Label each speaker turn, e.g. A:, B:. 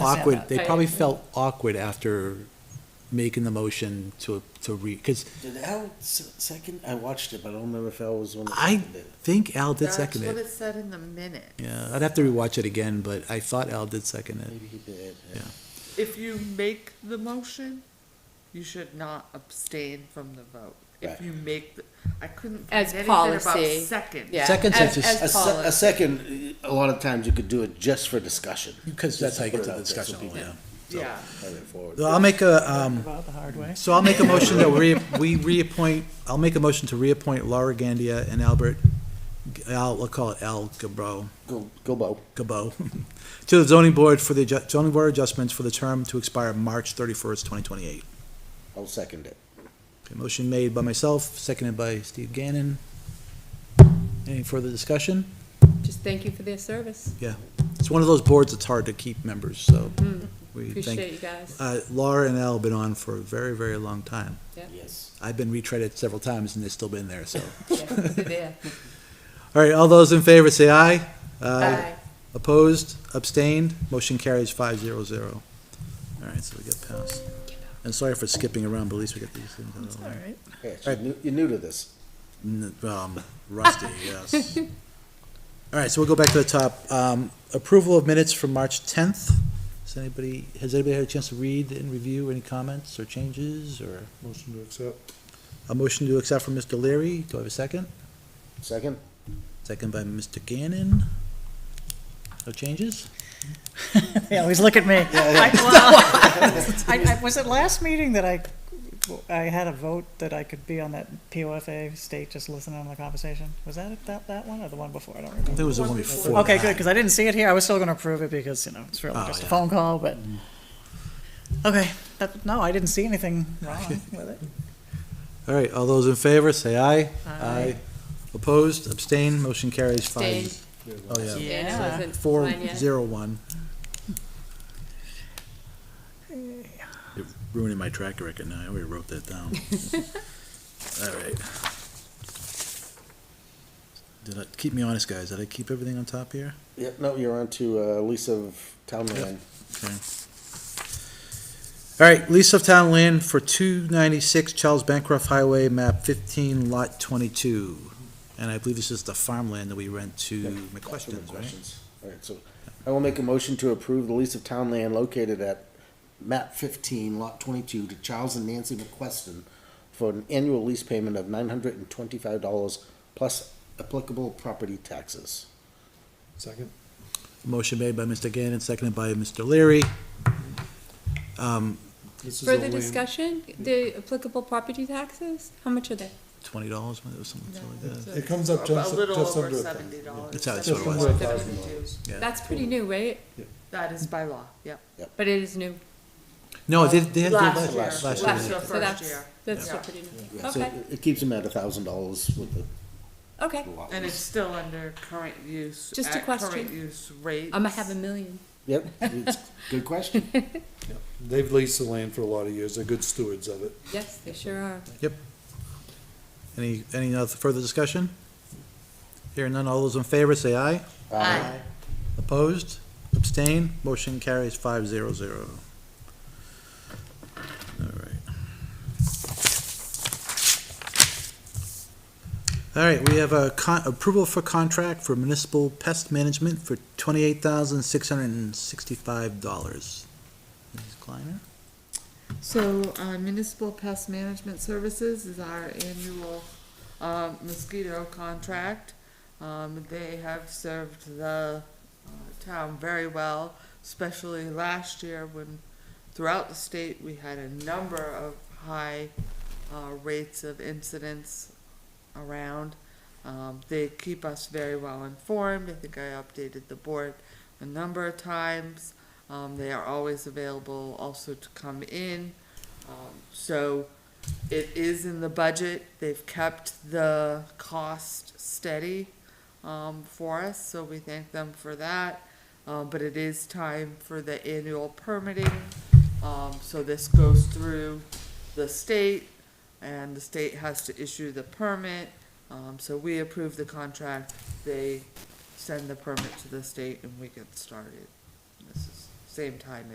A: awkward, they
B: Right.
A: probably felt awkward after making the motion to, to re, because
C: Did Al s- second? I watched it, but I don't remember if Al was one. that
A: I-
C: seconded it.
A: think Al did second
D: That's
A: it.
D: what it said in the minute.
A: Yeah, I'd have to rewatch it again, but I thought Al did second it.
C: Maybe he did.
A: Yeah.
D: If you make the motion, you should not abstain from the vote. If
C: Right.
D: you make, the I couldn't find
B: As
D: anything about
B: policy,
D: second.
B: Yeah.
A: Second
B: as-
A: census-
B: as
C: A, se-
B: policy.
C: a second, uh, a lot of times you could do it just for discussion.
A: Because that's how you get to the discussion, yeah.
C: point.
D: Yeah.
A: So I'll make a, um,
E: Well, the hard way.
A: so I'll make a motion that we, we reappoint, I'll make a motion to reappoint Laura Gandia and Albert, Al, we'll call it Al Gabro,
C: Go, go, Bo.
A: Gabo, to the zoning board for the, adju- zoning board adjustments for the term to expire March thirty-first, twenty twenty-eight.
C: I'll second it.
A: Okay, Motion made by myself, seconded by Steve Gannon. Any further discussion?
B: Just thank you for their service.
A: It's one of those boards that's hard to keep members, so
B: Mm,
A: we
B: Appreciate
A: thank.
B: you guys.
A: Uh, Laura and Al have been on for a very, very long time.
C: Yes.
A: I've been retreaded several times and they've still been there, so.
B: Yeah, they're there.
A: All right, all those in favor say aye.
B: Bye.
A: Opposed, abstained, motion carries five zero zero. All right, so we get passed. And sorry for skipping around, but at least we got these things out of the way.
C: Yeah, so you're new- you're new to this.
A: N- Um, rusty, yes. All right, so we'll go back to the top. Um, approval of minutes from March tenth. Does anybody, has anybody had a chance to read and review any comments or changes or
F: Motion to accept.
A: a motion to accept from Mr. Leary? Do I have a second?
C: Second?
A: Second by Mr. Gannon. No changes?
E: They always look at me. I- well, I, I, was it last meeting that I, I had a vote that I could be on that POFA state, just listening on the conversation? Was that, it- that, that one or the one before? I don't
A: I think
E: remember.
A: it was the one before.
E: Okay, good,
A: that.
E: because I didn't see it here. I was still gonna approve it because, you know, it's really
A: Oh,
E: just a
A: yeah. Mm.
E: phone call, but, okay, that, no, I didn't see anything wrong with it.
A: All right, all those in favor, say aye.
E: Aye.
A: Opposed, abstained, motion carries five.
B: Abstained.
A: Oh, yeah,
B: Yeah, it wasn't
A: four,
B: mine yet.
A: zero, one. It Ruining my track record now, I already wrote that down. All right. Did I, keep me honest, guys, did I keep everything on top here?
C: Yep, no, you're on to, uh, Lisa of Townland.
A: Okay. All right, lease of town land for two ninety-six Charles Bancroft Highway, map fifteen, lot twenty-two. And I believe this is the farmland that we rent to McQuestions, right?
C: All right, so I will make a motion to approve the lease of town land located at map fifteen, lot twenty-two to Charles and Nancy McQuestion for an annual lease payment of nine hundred and twenty-five dollars plus applicable property taxes.
F: Second.
A: Motion made by Mr. Gannon, seconded by Mr. Leary. Um,
F: This is all
B: Further
F: land.
B: discussion, the applicable property taxes, how much are they?
A: twenty dollars, it was something like that.
F: It comes up
D: A
F: just,
D: little
F: just
D: over
F: under a
D: seventy
F: thousand.
D: dollars.
A: That's how it's
F: Just
A: always-
F: under a thousand dollars.
A: Yeah.
B: That's pretty new, right?
D: That is by law, yep.
B: But it is new.
A: No, they, they had.
D: Last
A: last
D: year.
A: last
D: Last year.
A: year.
B: So that's-
D: first year.
B: That's still
D: Yeah.
B: pretty new.
C: Yeah, so
B: Okay,
C: it- it keeps them at a thousand dollars with the
B: okay.
C: lot.
D: And
C: lease.
D: it's still under current use.
B: Just a
D: at Current
B: question.
D: use rates.
B: I'm gonna have a million.
C: Yep, it's, good question.
F: They've leased the land for a lot of years. They're good stewards of it.
B: Yes, they sure are.
A: Any, any other further discussion? Hearing none, all those in favor, say aye.
C: Uh,
A: Opposed? Abstain? Motion carries five zero zero. All right. All right, we have a con, approval for contract for municipal pest management for twenty-eight thousand six hundred and sixty-five dollars. Mrs. Kleiner?
D: So uh, Municipal Pest Management Services is our annual um, mosquito contract. Um, They have served the uh, town very well, especially last year when throughout the state, we had a number of high uh, rates of incidents around. Um, They keep us very well informed. I think I updated the board a number of times. Um, they are always available also to come in. Um, so it is in the budget. They've kept the cost steady um, for us, so we thank them for that. Um, but it is time for the annual permitting. Um, so this goes through the state, and the state has to issue the permit. Um, so we approve the contract. They send the permit to the state, and we get started. This is same time